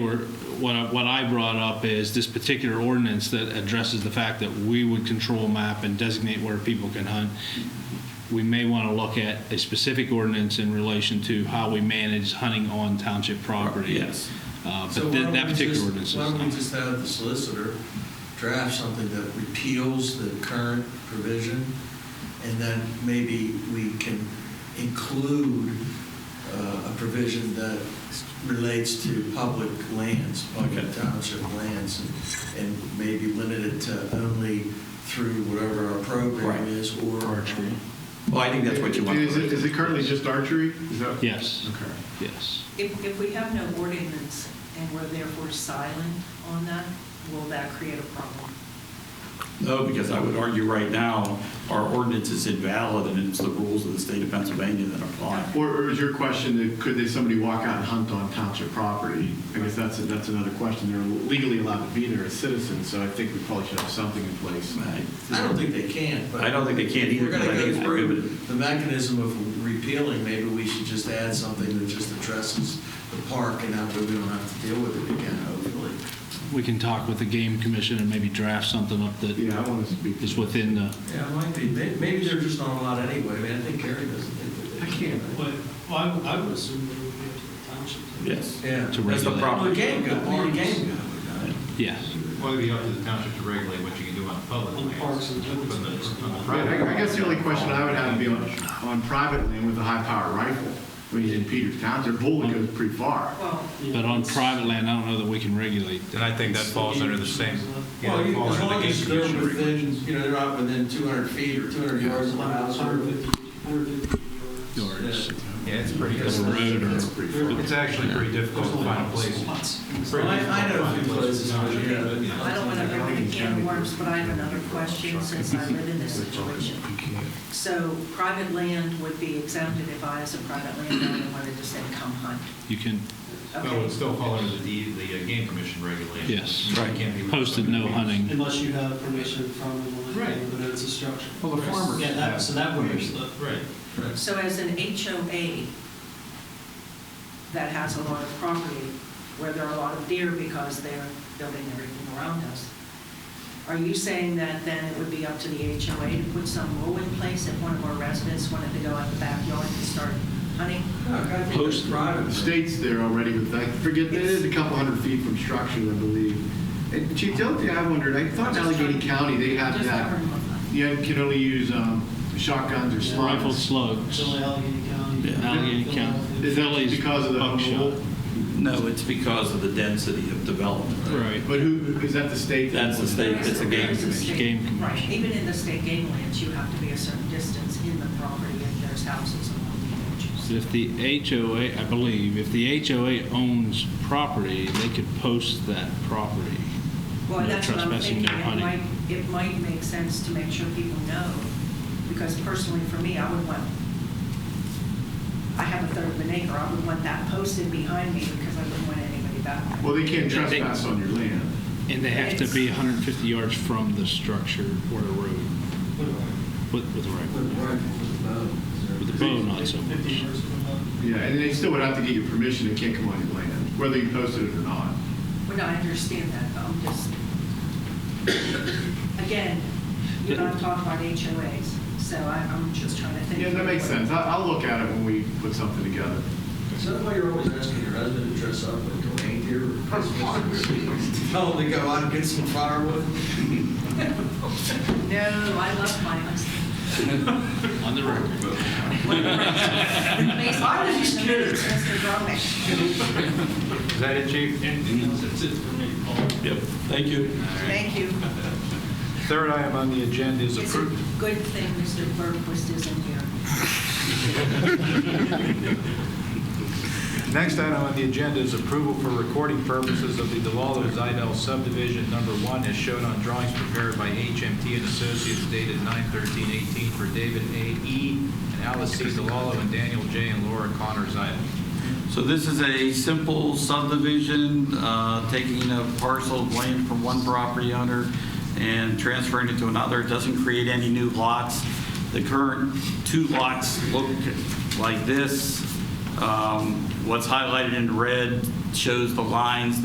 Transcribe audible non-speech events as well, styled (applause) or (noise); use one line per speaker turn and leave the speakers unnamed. We're- What I, what I brought up is this particular ordinance that addresses the fact that we would control map and designate where people can hunt. We may want to look at a specific ordinance in relation to how we manage hunting on township property.
Yes.
Uh,
So
But
why
that
don't
that
we
particular
just-
ordinance is
Why don't we
not.
just have the solicitor draft something that repeals the current provision, and then maybe we can include uh, a provision that relates to public lands, public
Okay.
township lands, and- and maybe limit it to only through whatever our program
Right.
is, or...
Archery.
Well, I think that's what you want.
Is it, is it currently just archery? Is that?
Yes,
Okay.
yes.
If, if we have no ordinance and we're therefore silent on that, will that create a problem?
No, because I would argue right now, our ordinance is invalid and it's the rules of the state of Pennsylvania that apply.
Or, or is your question that could they, somebody walk out and hunt on township property? I guess that's, a- that's another question. They're legally allowed to be there as citizens, so I think we probably should have something in place.
Right.
I don't think they can, but.
I don't think they can either,
We're gonna
but I think
go
it's
through
prohibited.
the mechanism of repealing, maybe we should just add something that just addresses the park, and that way we don't have to deal with it again, hopefully.
We can talk with the game commission and maybe draft something up that
Yeah, I want to speak.
is within the,
Yeah, it might be, May- maybe they're just not allowed anyway, I mean, I think Gary doesn't think
I
that they can.
can't.
But well, I would- I would assume that it would be up to the township.
Yes.
Yeah.
To
That's the
regulate.
Or
problem.
game go, or game go.
yes.
Well, it'd be up to the township to regulate what you can do on public
On
lands.
parks and public
But the-
spaces.
on the
Right,
private-
I I guess the only question I would have would be on, on private land with a high-powered rifle. I mean, in Peters Township, bullet goes pretty far.
Well,
But on private land, I don't know that we can regulate that.
And I think that falls under the same. yeah,
Well,
that
you-
falls
as
under the
long
game
as they're
commission
within, you know, they're not within 200 feet or 200 yards of the house. or-
150 150 yards.
Yards.
regulation. Yeah, it's pretty,
That's a road or-
That's pretty far.
it's actually pretty difficult to find a place.
Well, I I know a few places, where, yeah.
I don't want to open a can of worms, but I have another question since I live in this situation. So private land would be exempted if I, as a private landowner, wanted to say, come hunt.
You can
Oh,
No, it would
Okay,
still fall under the, deed- the uh, game commission regulations.
Yes.
You
Right.
can't be-
posted no hunting.
Unless you have permission from the
Right.
landlord, but it's a structure.
Well, the farmers
Yeah, that, so that would be the.
Right.
so as an HOA that has a lot of property where there are a lot of deer because they're building everything around us, are you saying that then it would be up to the HOA to put some rule in place if one of our residents wanted to go out the backyard and start hunting?
Look, I think it's
Post-
private.
The state's there already with, I forget, it is a couple hundred feet from structures, I believe. And Chief, the other thing I wondered, I thought in Allegheny County, they have
Just
that,
covering my mind.
you can only use um, shotguns or
Rifled
slugs.
slugs.
Philly, Allegheny County.
Yeah.
Allegheny County.
Is that
Philly's
because of the
buckshot.
rule?
No, it's because of the density of development.
Right.
But who, is that the state?
That's the state, it's a game
There's
commission.
state-
Game commission.
Right, even in the state game lands, you have to be a certain distance in the property and there's houses along the edges.
If the HOA, I believe, if the HOA owns property, they could post that property.
Well,
No
that's what I'm
trespassing,
thinking,
no
it
hunting.
might, it might make sense to make sure people know, because personally for me, I would want, I have a third of an acre, I would want that posted behind me because I wouldn't want anybody back there.
Well, they can't
They- they-
trespass on your land.
And they have to be 150 yards from the structure or the road with, with a
With
rifle.
rifle, with bow.
With the bow, not so much.
50 yards from the-
Yeah, and they still would have to get your permission, they can't come on your land, whether you posted it or not.
Well, no, I understand that, but I'm just, again, you don't talk about HOAs, so I- I'm just trying to think.
Yeah, that makes sense. I- I'll look at it when we put something together.
Is that why you're always asking your husband to dress up like a reindeer? (laughs) Tell him to go out and get some firewood?
No, I love my
(laughs)
husband.
On the road.
I was just curious. Mr. Grumman.
Is that it, chief?
Yep, thank you.
Thank you.
Third item on the agenda is
It's a
approved.
good thing Mr. Berquist isn't here.
Next item on the agenda is approval for recording purposes of the DeLalo Zidell subdivision number one as shown on drawings prepared by HMT and Associates dated 9/13/18 for David A. E. and Alice C. DeLalo and Daniel J. and Laura Connor Zidell.
So this is a simple subdivision, uh, taking a parcel of land from one property owner and transferring it to another. It doesn't create any new lots. The current two lots look like this. Um, What's highlighted in red shows the lines